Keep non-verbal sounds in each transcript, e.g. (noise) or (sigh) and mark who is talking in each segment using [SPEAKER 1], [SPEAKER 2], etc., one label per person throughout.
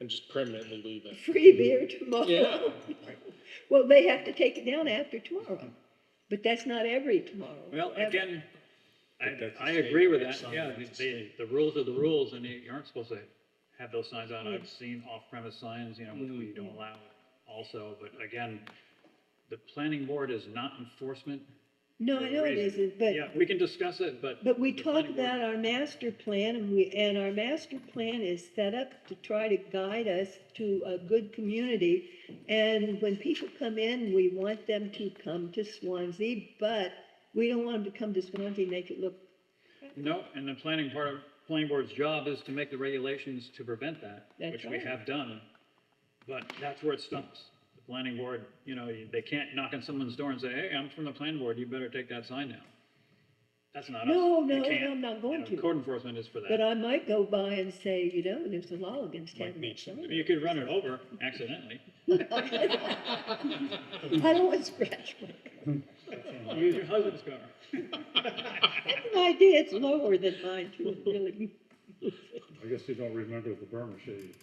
[SPEAKER 1] and just permanently leave it.
[SPEAKER 2] (laughs) free beer tomorrow.
[SPEAKER 1] Yeah.
[SPEAKER 2] (laughs) Well, they have to take it down after tomorrow, but that's not every tomorrow.
[SPEAKER 3] Well,
[SPEAKER 2] Ev-
[SPEAKER 3] again,
[SPEAKER 1] But
[SPEAKER 3] I,
[SPEAKER 1] that's a
[SPEAKER 3] I agree with
[SPEAKER 1] state
[SPEAKER 3] that, yeah,
[SPEAKER 1] sign, that's a
[SPEAKER 3] the, the rules are the rules, and you aren't supposed to have those signs on,
[SPEAKER 2] Mm-hmm.
[SPEAKER 3] I've seen off-premise signs, you know, which we don't allow also, but again, the planning board is not enforcement.
[SPEAKER 2] No,
[SPEAKER 3] for
[SPEAKER 2] I
[SPEAKER 3] a
[SPEAKER 2] know it
[SPEAKER 3] reason.
[SPEAKER 2] isn't, but,
[SPEAKER 3] Yeah, we can discuss it, but.
[SPEAKER 2] but we
[SPEAKER 3] the
[SPEAKER 2] talk
[SPEAKER 3] planning board-
[SPEAKER 2] about our master plan and we, and our master plan is set up to try to guide us to a good community. And when people come in, we want them to come to Swansea, but we don't want them to come to Swansea and make it look,
[SPEAKER 3] No, and the planning part of, planning board's job is to make the regulations to prevent that,
[SPEAKER 2] That's
[SPEAKER 3] which we
[SPEAKER 2] right.
[SPEAKER 3] have done. But that's where it stops. The planning board, you know, you- they can't knock on someone's door and say, hey, I'm from the planning board, you better take that sign down. That's not us.
[SPEAKER 2] No,
[SPEAKER 3] You
[SPEAKER 2] no, no,
[SPEAKER 3] can't.
[SPEAKER 2] I'm not
[SPEAKER 3] You
[SPEAKER 2] going
[SPEAKER 3] know,
[SPEAKER 2] to.
[SPEAKER 3] Code enforcement is for
[SPEAKER 2] but
[SPEAKER 3] that.
[SPEAKER 2] I might go by and say, you know, there's a law against
[SPEAKER 1] Might
[SPEAKER 2] having
[SPEAKER 1] meet
[SPEAKER 2] that sign.
[SPEAKER 3] You could run it over accidentally.
[SPEAKER 2] (laughs) I don't want to scratch my car.
[SPEAKER 3] Use your
[SPEAKER 2] (laughs)
[SPEAKER 3] husband's car.
[SPEAKER 2] That's an idea, it's lower than mine too, really.
[SPEAKER 4] I guess you don't remember the Burma shade.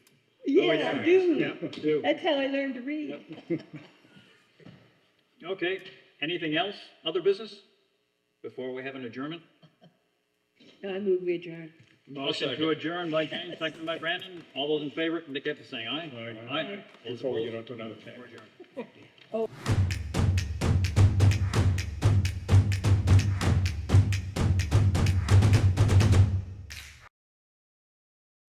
[SPEAKER 2] Yeah, I do.
[SPEAKER 3] Oh, Yeah, do.
[SPEAKER 2] That's how I learned to read.
[SPEAKER 3] Okay, anything else? Other business? Before we have an adjournment?
[SPEAKER 2] I move we adjourn.
[SPEAKER 3] Motion to adjourn by Jane, second by Brandon. All those in favor, indicate by saying aye.
[SPEAKER 1] Aye.
[SPEAKER 3] Aye. Those
[SPEAKER 1] Before we get
[SPEAKER 3] opposed?
[SPEAKER 1] on to another thing.
[SPEAKER 3] We're adjourned.